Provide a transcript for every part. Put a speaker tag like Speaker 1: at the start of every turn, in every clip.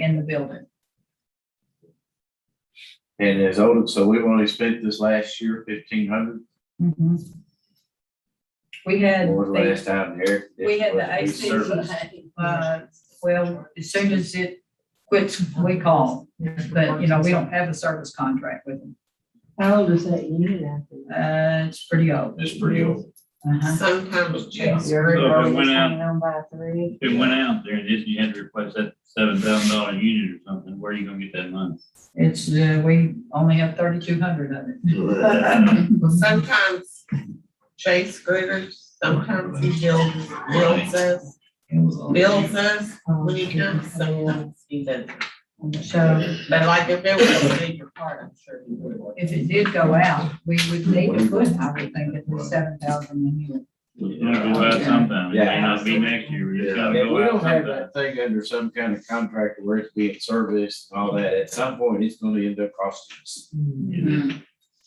Speaker 1: in the building.
Speaker 2: And as old, so we only spent this last year fifteen hundred,
Speaker 1: We had,
Speaker 2: or the
Speaker 1: the-
Speaker 2: last time there.
Speaker 1: we had the AC, uh, well, as soon as it quits, we call. But, you know, we don't have a service contract with them.
Speaker 3: How old is that unit after that?
Speaker 1: Uh, it's pretty old.
Speaker 2: It's pretty old.
Speaker 1: Uh-huh.
Speaker 4: Sometimes
Speaker 2: Yeah.
Speaker 4: checks.
Speaker 3: Your
Speaker 5: So if it
Speaker 3: road was
Speaker 5: went out-
Speaker 3: hanging on by three.
Speaker 5: If it went out there and just you had to replace that seven thousand dollar unit or something, where are you gonna get that money?
Speaker 1: It's, uh, we only have thirty-two hundred of it.
Speaker 4: Sometimes Chase Gritters, sometimes he builds, builds us, builds us when he comes, sometimes he doesn't.
Speaker 1: Oh, So
Speaker 4: But like if there was a bigger part, I'm sure he would.
Speaker 1: if it did go out, we would need to put, I would think, at least seven thousand in here.
Speaker 5: It'll go out sometime, it may not be next year, but it's
Speaker 2: Yeah,
Speaker 5: gotta
Speaker 2: if we
Speaker 5: go out
Speaker 2: don't have
Speaker 5: sometime.
Speaker 2: that thing under some kind of contract where it's being serviced and all that, at some point, it's gonna end up costing us.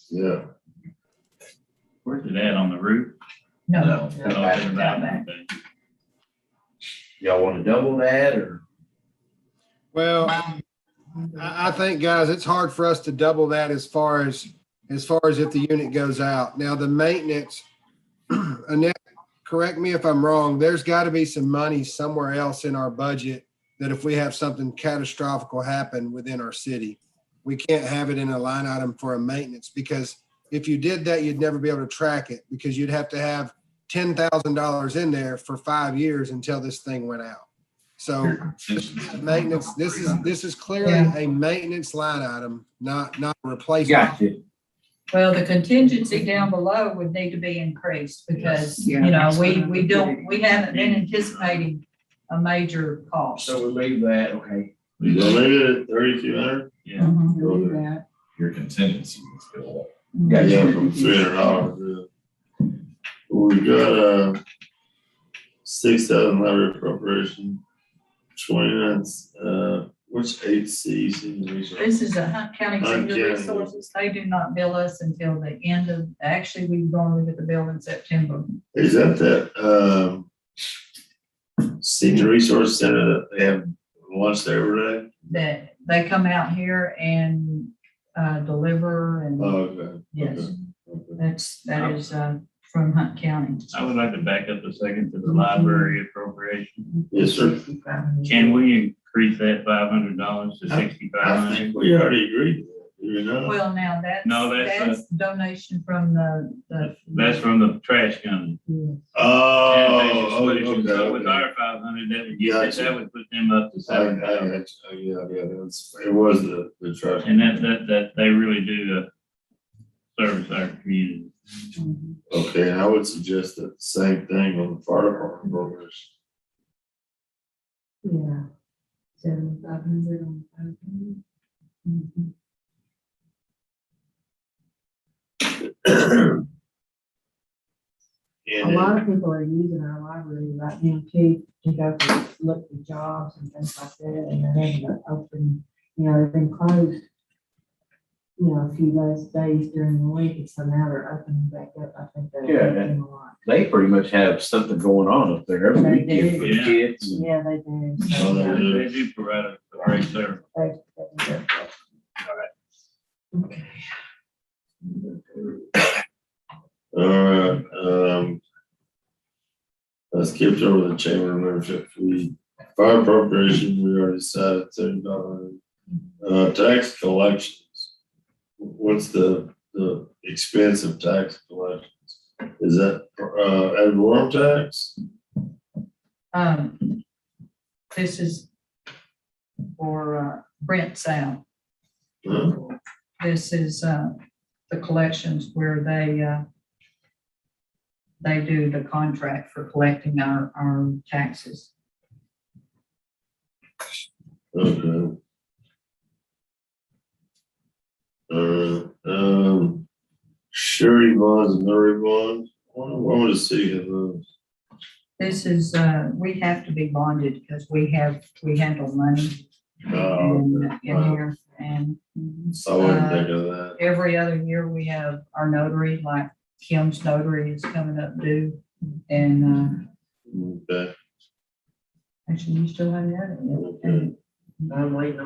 Speaker 6: Yeah,
Speaker 5: Where's it at, on the roof?
Speaker 1: No.
Speaker 5: Oh, it's
Speaker 1: Right,
Speaker 5: about
Speaker 1: down back.
Speaker 5: that.
Speaker 2: Y'all wanna double that, or?
Speaker 7: Well, I, I think, guys, it's hard for us to double that as far as, as far as if the unit goes out. Now, the maintenance, Annette, correct me if I'm wrong, there's got to be some money somewhere else in our budget that if we have something catastrophic happen within our city, we can't have it in a line item for a maintenance because if you did that, you'd never be able to track it because you'd have to have ten thousand dollars in there for five years until this thing went out. So maintenance, this is, this is clearly
Speaker 1: Yeah.
Speaker 7: a maintenance line item, not, not a replacement.
Speaker 2: Got you.
Speaker 1: Well, the contingency down below would need to be increased because, you know, we, we don't, we haven't been anticipating a major cost.
Speaker 2: So we leave that, okay.
Speaker 6: You
Speaker 5: Yeah.
Speaker 6: don't need it.
Speaker 5: Thirty-two hundred? Yeah.
Speaker 1: Mhm.
Speaker 6: Go there.
Speaker 3: That.
Speaker 6: Your contingency is going up.
Speaker 2: Got
Speaker 6: Yeah,
Speaker 2: you.
Speaker 6: from three hundred dollars. yeah. We got, uh, six thousand library appropriation, twenty-nine, uh, which eight C's in the reserve?
Speaker 1: This is a Hunt County Senior
Speaker 6: Okay.
Speaker 1: Resources. They do not bill us until the end of, actually, we normally get the bill in September.
Speaker 6: Is that that, um, senior resource center that they have lunch there every day?
Speaker 1: That they come out here and, uh, deliver
Speaker 6: Oh,
Speaker 1: and,
Speaker 6: okay.
Speaker 1: yes,
Speaker 6: okay, okay.
Speaker 1: that's, that is, uh, from Hunt County.
Speaker 5: I would like to back up a second to the library appropriation.
Speaker 6: Yes, sir.
Speaker 5: Can we increase that five hundred dollars to sixty-five
Speaker 6: I
Speaker 5: hundred?
Speaker 6: think we already agreed, you know?
Speaker 1: Well, now that's,
Speaker 5: No, that's, uh,
Speaker 1: that's donation from the, the.
Speaker 5: That's from the trash company.
Speaker 6: Oh,
Speaker 5: That's
Speaker 6: oh,
Speaker 5: what it should go With
Speaker 6: okay.
Speaker 5: our five hundred, that would get, that- that would put them up to
Speaker 6: I, I,
Speaker 5: seven thousand.
Speaker 6: I- oh, yeah, yeah, that's, it was the, the trash.
Speaker 5: And that, that, that, they really do, uh, service our community.
Speaker 6: Okay, and I would suggest that same thing on the fire department programs.
Speaker 3: Yeah.
Speaker 1: Um,
Speaker 3: Seventy-five hundred on five hundred. A lot
Speaker 6: And
Speaker 3: of people are using our library right now too, to go for, look for jobs and things like that, and they're having to open, you know, they've been closed. You know, a few less days during the week, and so now they're opening back up, I think
Speaker 2: Yeah.
Speaker 3: they're opening a lot.
Speaker 2: They pretty much have something going on up there every
Speaker 3: They
Speaker 2: weekend for the
Speaker 5: do.
Speaker 2: kids. and-
Speaker 3: Yeah, they do.
Speaker 6: Oh,
Speaker 3: so,
Speaker 5: They
Speaker 3: yeah,
Speaker 5: they do provide a a great service.
Speaker 3: they- they do.
Speaker 6: Alright, um. I skipped over the chamber membership fee, fire appropriation, we already said thirty dollars. Uh, tax collections. What's the, the expense of tax collections? Is that, uh, ad valorem tax?
Speaker 1: Um, this is for uh, Brent Sound.
Speaker 6: Huh?
Speaker 1: This is, uh, the collections where they, uh, they do the contract for collecting our, our taxes.
Speaker 6: Okay. Uh, um, surety bonds, and notary bonds, I wonder, what would the city have those?
Speaker 1: This is, uh, we have to be bonded because we have, we handle money
Speaker 6: Oh,
Speaker 1: in,
Speaker 6: okay.
Speaker 1: in here. And
Speaker 6: I wouldn't
Speaker 1: uh,
Speaker 6: think of that.
Speaker 1: every other year we have our notary, like Kim's notary is coming up due. And, uh,
Speaker 6: Okay,
Speaker 1: actually, you still have that?
Speaker 6: Mm. okay.
Speaker 4: I'm waiting on